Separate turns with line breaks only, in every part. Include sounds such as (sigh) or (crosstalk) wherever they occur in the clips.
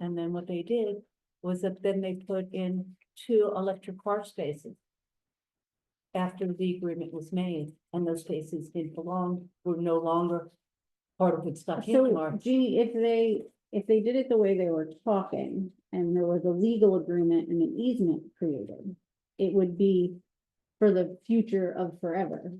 And then what they did was that then they put in two electric car spaces. After the agreement was made and those spaces didn't belong, were no longer part of Woodstock
So
anymore.
gee, if they, if they did it the way they were talking and there was a legal agreement and an easement created, it would be for the future of forever.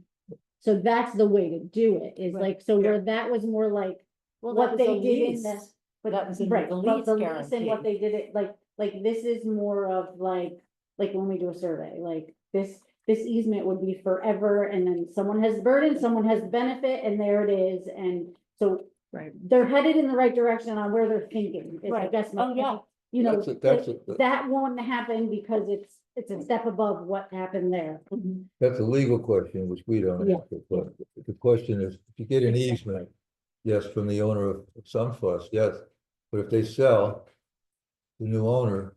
So that's the way to do it, is
Right.
like, so where that was more like,
Well,
what
that was
they
a
did in
lease.
this-
But that was in
right,
the
but
lease
the lease and
guarantee.
what they did it, like, like this is more of like, like when we do a survey, like this, this easement would be forever and then someone has burden, someone has benefit, and there it is, and so
Right.
they're headed in the right direction on where they're thinking, is I
Right.
guess. my
Oh, yeah.
point. You know,
That's a- that's a-
that- that won't happen because it's, it's a step above what happened there.
Mhm.
That's a legal question, which we don't
Yeah.
answer, but the question is, if you get an easement, yes, from the owner of Sunfuss, yes. But if they sell, the new owner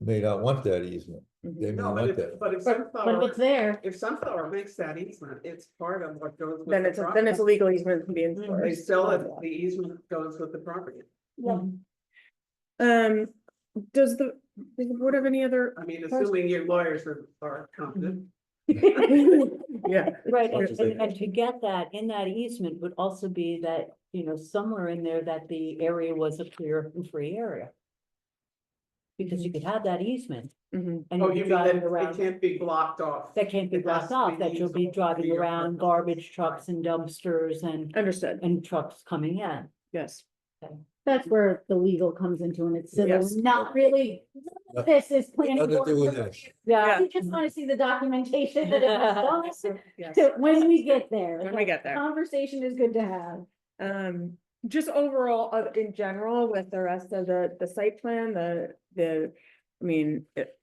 may not want that easement,
Mm-hmm.
they may
No, but
want
if,
that.
but if
But if
sunflower,
it's there,
if sunflower makes that easement, it's part of what goes with
Then
the Mm-hmm.
it's, a- then
property.
it's a legal easement can be
They
enforced.
sell it, the easement goes with the property.
yeah,
Um, does the, does the board have any
(laughs)
other?
I mean,
First-
assuming your lawyers are, are competent.
Yeah,
Right,
Much
and,
as they
and- and to get that, in that easement would also be that, you know, somewhere in there that the area was a clear and free area. Because you could have that easement
mhm,
and
Oh,
you'd
you
be
mean that
driving
it
around,
can't be blocked off?
that can't be
it has
blocked
to
off,
be
that you'll be
usable for
driving
your
around
purposes.
garbage trucks and dumpsters and,
understood,
and trucks coming in.
yes.
that's where the legal comes into and it's civil,
Yes.
not really,
No-
this is. planning
Nothing to do with
board.
this.
Yeah.
You just wanna see the documentation that it was
(laughs)
done. (laughs)
Yes.
So When we get there.
When we get there.
Conversation is good to have.
Um, just overall, uh, in general, with the rest of the, the site plan, the, the, I mean, it.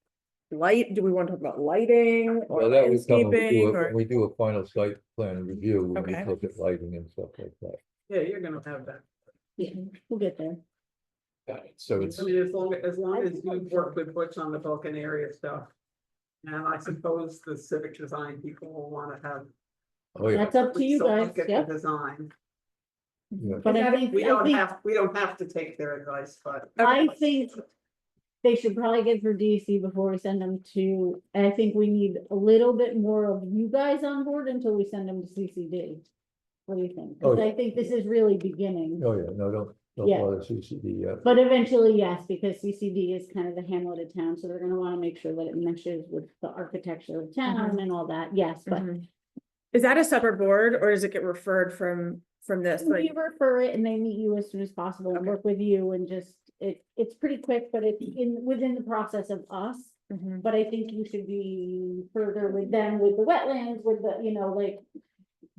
Light, do we want to talk about lighting or
Well, that would come, when we
landscaping
do a- when
or?
we do a final site plan review, we
Okay.
look at lighting and stuff like that.
Yeah, you're gonna have that.
Yeah, we'll get there.
So
I mean, as long, as long as you work with Butch on the Vulcan area stuff. And I suppose the civic design people will wanna have.
Oh, yeah,
That's up to you
So
guys,
look at the
yeah.
Design.
yeah.
But I think,
We
I
don't
think
have, we don't have to take their advice, but.
I think they should probably get through DC before we send them to, and I think we need a little bit more of you guys on board until we send them to CCD. What do you think? Because
Oh, yeah.
I think this is really beginning,
Oh, yeah, no, don't, don't
Yeah.
bother CCD yet.
but eventually, yes, because CCD is kind of the hamlet of town, so they're gonna wanna make sure that it meshes with the architecture of
Uh-huh.
town and all that, yes, but.
Mhm. Is that a separate board or does it get referred from, from this?
We
Like,
refer it and they meet you as soon as possible and
Okay.
work with you and just, it, it's pretty quick, but it's in, within the process of us.
mhm,
But I think you should be further with them, with the wetlands, with the, you know, like,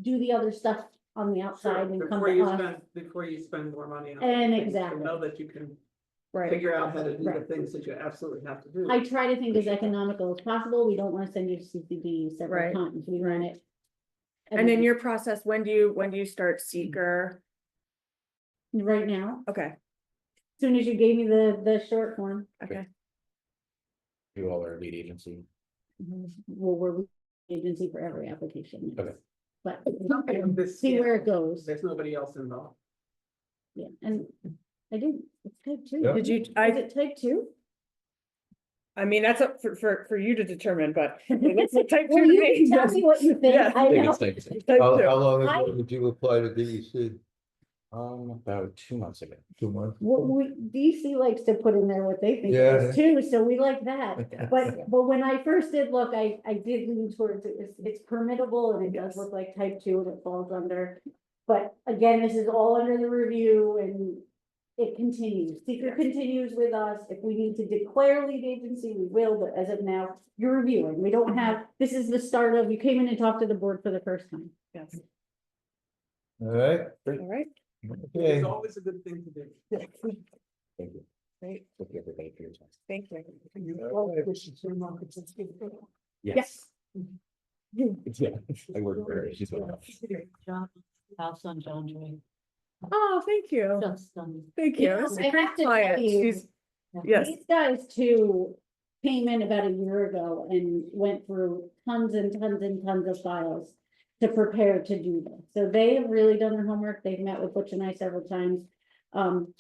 do the other stuff on the outside and come
Before
to
you
us.
spend, before you spend more money on.
And
things, to
exactly.
Know that you can
right,
figure out how to do the
Right.
things that you absolutely have to do.
I try to think as economical as possible. We don't wanna send you to CCD several
Right,
times. We run it.
and then your process, when do you, when do you start seeker?
Right now,
Okay,
as soon as you gave me the, the short form,
okay.
You all are lead agency.
well, we're agency for every application. yes.
Okay.
But
Something of this
see where
scale.
it goes.
There's nobody else involved.
Yeah, and I didn't, it's type two.
Yeah.
Did you-
Is
I-
it type two?
I mean, that's up for, for, for you to
(laughs)
determine, but it's a type
Well,
two
you
to
can
me.
tell me what you think.
Yeah.
I know.
Type
How,
two.
how long
I-
ago did you apply to DEC?
Um, about two months ago.
Two months?
What we, DC likes to put in there what they think it is too, so we like that. But, but when I first did look, I, I did lean towards it, it's, it's permittable and it does look like type two and it falls under. But again, this is all under the review and it continues, seeker continues with us. If we need to declare lead agency, we will, but as of now, you're reviewing. We don't have, this is the start of, you came in and talked to the board for the first time.
Yes.
All right,
All right,
okay.
It's always a good thing to do.
Thank you.
Great.
Thank you, everybody, for your time.
thank you.
Yes. Yeah, I work very.
Great job. House on John Dray,
Oh, thank you,
just stunning.
thank
You
you.
know,
That's a
I
great
have to tell
client.
you-
She's-
Yeah.
Yes.
These guys too came in about a year ago and went through tons and tons and tons of files to prepare to do this. So they have really done their homework. They've met with Butch and I several times. Um,